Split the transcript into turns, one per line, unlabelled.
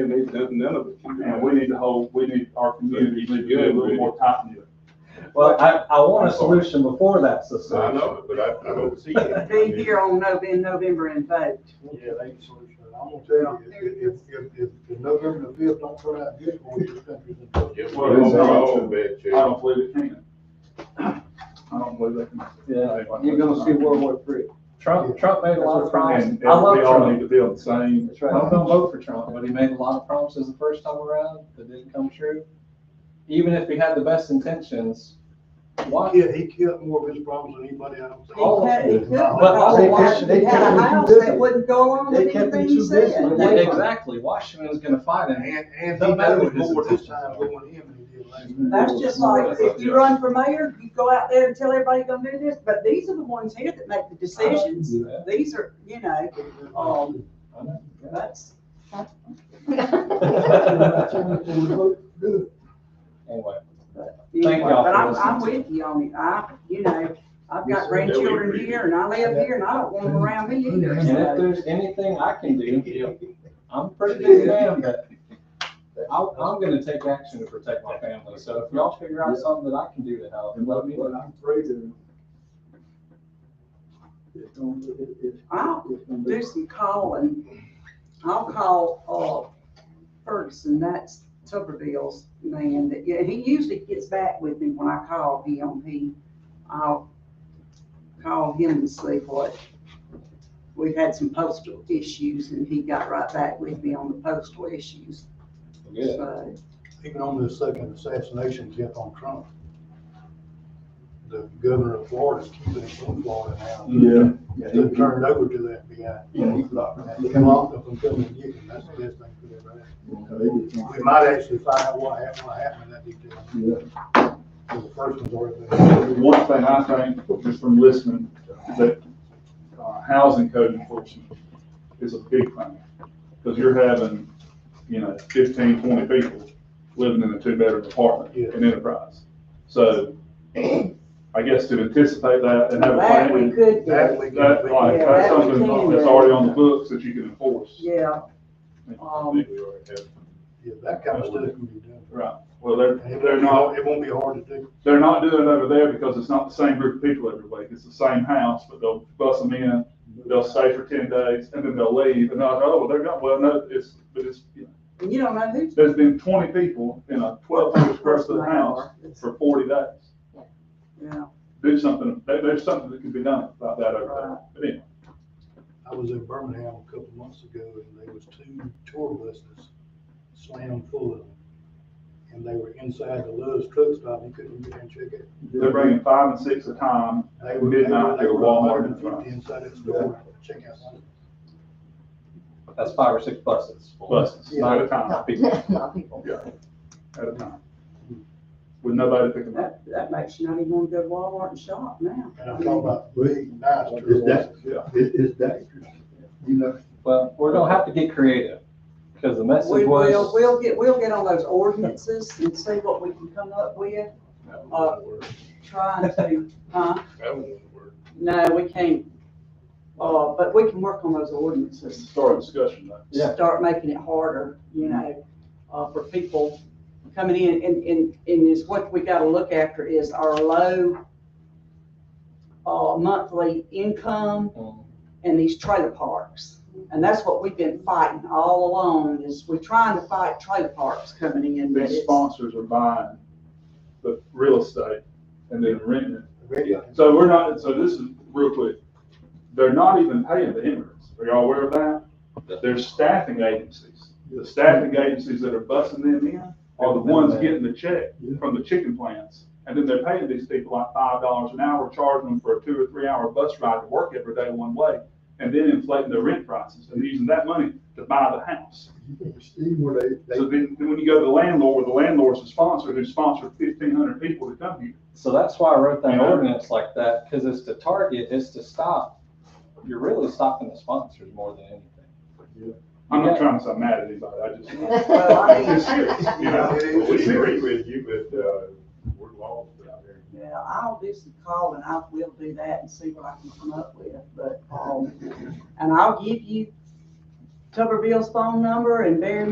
And they, that- none of it can do. And we need to hold, we need our community to be a little more tight knit.
Well, I, I want a solution before that's the
I
solution.
know, but I, I don't see it.
Be here on Nov, in November and vote.
Yeah, they can solution it. I'm gonna tell you, if, if, if, if the November the fifth don't turn out good for you, this country's in trouble.
It's one of them, I don't- I don't believe it can. I don't believe it can.
Yeah,
You're gonna see World War Three.
Trump, Trump made a lot of promises.
And,
I
and we
love
all need
Trump.
to be on the same.
That's right. I'm gonna vote for Trump, but he made a lot of promises the first time around that didn't come true. Even if he had the best intentions, why?
Yeah, he killed more of his problems than anybody I don't
He
think.
All of
cut- he
it.
cut
But
because
they
why-
kept- they
he had
kept
a
him too
house that
busy.
wouldn't go along
They
with
kept him
anything he
too
said.
busy. They-
Exactly, Washington's gonna fight him.
And, and he
Don't matter
knows
what his
more this
intentions
time
are.
going in than he did last. time.
That's just like, if you run for mayor, you go out there and tell everybody you're gonna do this, but these are the ones here that make the decisions.
do that.
These are, you know, um,
I know.
that's,
Anyway,
anyway,
Thank y'all
but
for
I'm, I'm
listening.
with you on it. I, you know, I've
Yes,
got
sir.
grandchildren here and I live here and I don't want them around me either.
and if
so.
there's anything I can do, I'm a pretty busy man, but I, I'm gonna take action to protect my family. So if y'all figure out something that I can do to help, let me know.
I'm afraid of. It's gonna, it, it,
I'll
it's gonna be.
do some calling. I'll call, uh, Ferguson, that's Tuberville's man that, yeah, he usually gets back with me when I call him. He, I'll call him and see what, we've had some postal issues and he got right back with me on the postal issues.
Good.
So,
Even on the second assassination attempt on Trump. The governor of Florida is keeping it from Florida now.
Yeah.
It's been turned over to the FBI.
Yeah, he's not.
And he locked up and couldn't get him. That's the best thing for them, right? We might actually find out what happened, what happened in that detail.
Yeah.
Because the first one's already been.
One thing I think, just from listening, that uh, housing code enforcement is a big thing. Because you're having, you know, 15, 20 people living in a two-bedroom apartment
Yeah.
in Enterprise. So I guess to anticipate that and have a
that we
plan,
could
That
do,
we
that,
can-
like,
Yeah,
that's
that we
something
can
that's
do.
already on the books that you can enforce.
yeah.
I think
Um,
we already have.
Yeah, that kind of stuff can be done.
Right, well, they're,
And it-
they're not,
It won't be hard to do.
They're not doing it over there because it's not the same group of people every week. It's the same house, but they'll bus them in, they'll stay for ten days, and then they'll leave, and they're like, oh, well, they're gone. Well, no, it's, but it's, you know,
And you don't know who's.
there's been twenty people in a twelve hundred square foot house for forty days.
Yeah,
Do something, there, there's something that can be done about that over there. But anyway,
I was in Birmingham a couple months ago and there was two tour buses slammed full of them. And they were inside the Love's truck stop. You couldn't get in and check it.
they're bringing five and six at a time,
They were-
Midnight, they were Walmart in
They were 150
front.
inside that store. Check out. something.
That's five or six buses.
buses, at a time,
Not
people,
not people.
at a time. With nobody picking them up.
that, that makes you not even want to go to Walmart and shop now.
And I'm talking about big, nice tour
Is that-
buses.
Yeah.
It, it's dangerous, you know.
Well, we're gonna have to get creative, because the
We
message
will,
was,
we'll get, we'll get on those ordinances and see what we can come up with, uh, trying to, huh? No, we can't, uh, but we can work on those ordinances.
Start a discussion, though.
Yeah.
Start making it harder, you know, uh, for people coming in, and, and, and is what we gotta look after is our low uh, monthly income
Mm,
and these trailer parks. And that's what we've been fighting all along is we're trying to fight trailer parks coming in, but
These
it's,
sponsors are buying the real estate and then renting it.
Radio.
So we're not, so this is real quick. They're not even paying the immigrants. Are y'all aware of that? There's staffing agencies. The staffing agencies that are busting them in are the ones getting the check from the chicken plants. And then they're paying these people like five dollars an hour, charging them for a two or three hour bus ride to work every day one way. And then inflating their rent prices and using that money to buy the house.
You can see where they, they.
So then, then when you go to the landlord, the landlord's the sponsor, who sponsored fifteen hundred people to come here.
So that's why I wrote that
Yeah.
ordinance like that, because it's to target, it's to stop, you're really stopping the sponsors more than anything.
I'm not
Yeah.
trying to sound mad at anybody, I just.
Well, I mean-
It's serious, you know,
It is.
it's serious.
with you, but, uh, we're lost out there.
yeah, I'll do some calling. I will do that and see what I can come up with, but, um, and I'll give you Tuberville's phone number and Barry